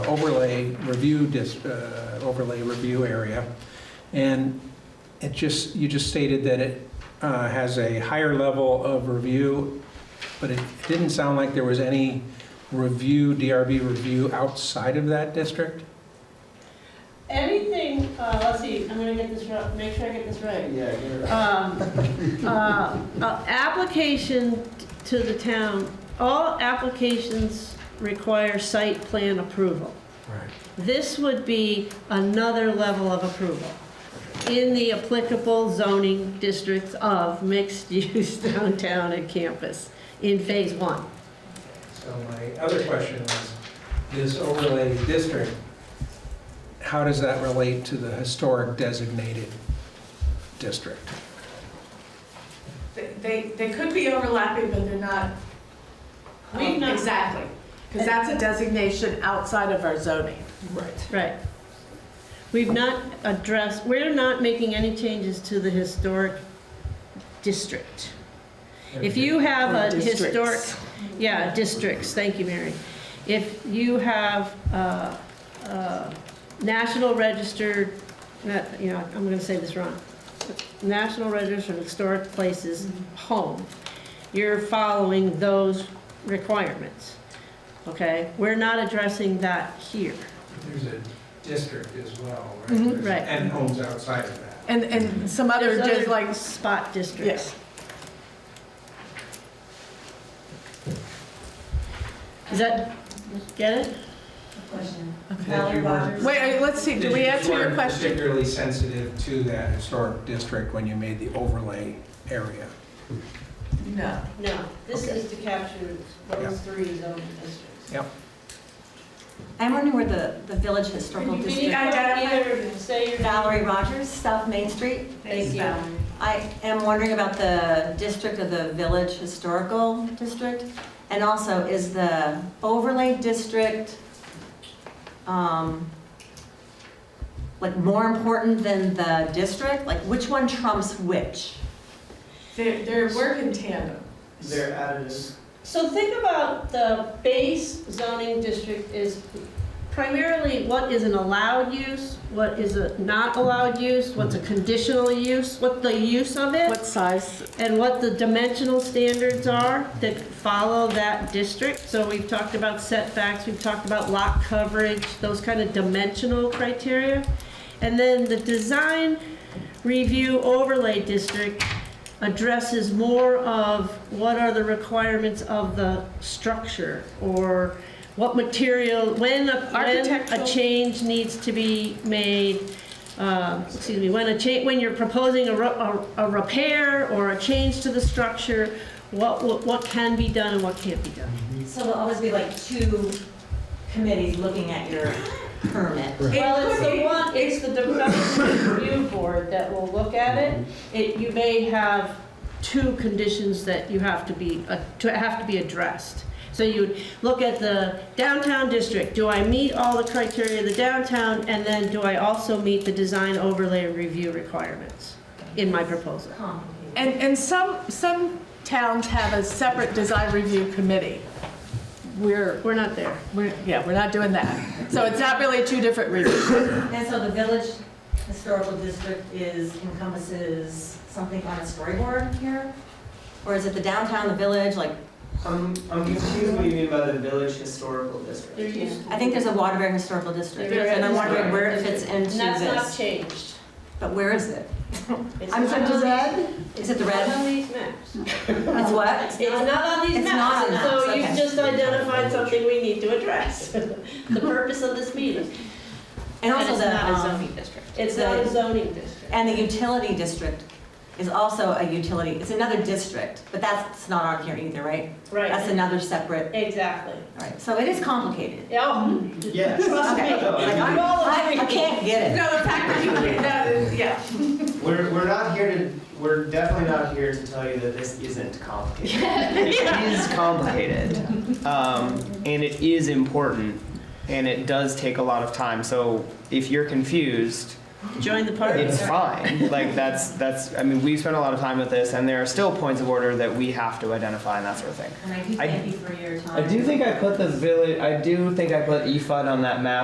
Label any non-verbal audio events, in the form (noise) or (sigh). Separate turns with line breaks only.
overlay review, dis- uh, overlay review area. And it just, you just stated that it uh, has a higher level of review, but it didn't sound like there was any review, DRB review outside of that district?
Anything, uh, let's see, I'm gonna get this, ri- make sure I get this right.
Yeah, you're right.
Um,
(laughs)
uh, uh, Application to the town, all applications require site plan approval.
Right.
This would be another level of approval in the applicable zoning districts of mixed-use (laughs) downtown and campus in phase one.
So my other question was, this overlay district, how does that relate to the historic designated district?
They- They, they could be overlapping, but they're not. um,
We've not-
Exactly, because that's a designation outside of our zoning.
Right.
Right. We've not addressed, we're not making any changes to the historic district. If you have a
Or
historic,
districts.
yeah, districts, thank you, Mary. If you have uh, uh, National Registered, not- you know, I'm going to say this wrong, National Register of Historic Places home, you're following those requirements, okay? We're not addressing that here.
There's a district as well, right?
Mhm.
There's-
Right.
And homes outside of that.
And, and some other,
There's
just like,
Spot districts. Is that, get it?
Question.
That you weren't-
wait, I- let's see, do we
that you
answer your
weren't
question?
Particularly sensitive to that historic district when you made the overlay area.
No.
No,
this Okay.
to capture
Yeah.
three zoning districts.
I'm wondering where the, the Village Historical District,
identify-
say your
Valerie Rogers, South Main Street.
Thank you.
I am wondering about the district of the Village Historical District. And also, is the overlay district, um, like more important than the district? Like which one trumps which?
They're, they're working tandem.
They're additives.
So think about the base zoning district is primarily what is an allowed use, what is a not allowed use, what's a conditional use, what the use of it.
Mm-hmm. What size?
and what the dimensional standards are that follow that district. So we've talked about setbacks, we've talked about lot coverage, those kind of dimensional criteria. And then the design review overlay district addresses more of what are the requirements of the structure or what material, when a, when a
Architectural.
change needs to be made, um, excuse me, when a cha, when you're proposing a, ru- a a repair or a change to the structure, what, what what can be done and what can't be done.
So there'll always be like two committees looking at (laughs) your permit.
Well, it's the one, it's the development review board that will look at it. It, you may have two conditions that you have to be, uh, to have to be addressed. So you would look at the downtown district, do I meet all the criteria of the downtown? And then do I also meet the design overlay review requirements in my proposal?
Complicated.
And, and some, some towns have a separate design review committee. We're,
We're not there.
we're, yeah, we're not doing that. So it's not really two different reviews.
And so the village historical district is encompasses something on a storyboard here? Or is it the downtown, the village, like,
I'm, I'm confused what Um, you mean by the village historical district.
I think there's a Waterbury historical district.
There is.
And I'm wondering where it fits into
And that's not
this.
changed.
But where is it?
It's
I'm
not
sorry,
on
does
these-
that? Is it the
It's
red?
not on these maps.
It's what?
It's not on these
It's not
maps,
on
and so
maps,
you've
okay.
just identified something we need to address, (laughs) the purpose of this meeting.
And also
it's
the,
not a
um,
district.
It's not a zoning district.
and the utility district is also a utility, it's another district, but that's not on here either, right? That's
Right,
another separate,
exactly. Oh.
all right, so it is complicated.
Yeah,
Mm-hmm.
(laughs)
Yes.
trust me.
(laughs)
Okay.
No, I mean-
I'm all
I I
agreeing.
can't get it.
No, the fact that you, that is, yeah.
(laughs) We're, we're not here to, we're definitely not here to tell you that this isn't
(laughs)
complicated. It is complicated, um, and it is important, and it does take a lot of time, so if you're confused,
Join the party.
it's fine. Like, that's, that's, I mean, we've spent a lot of time with this, and there are still points of order that we have to identify and that sort of thing.
And I do
I-
thank you for your
I
time.
do think I put the village. I do think I put EFUD on that map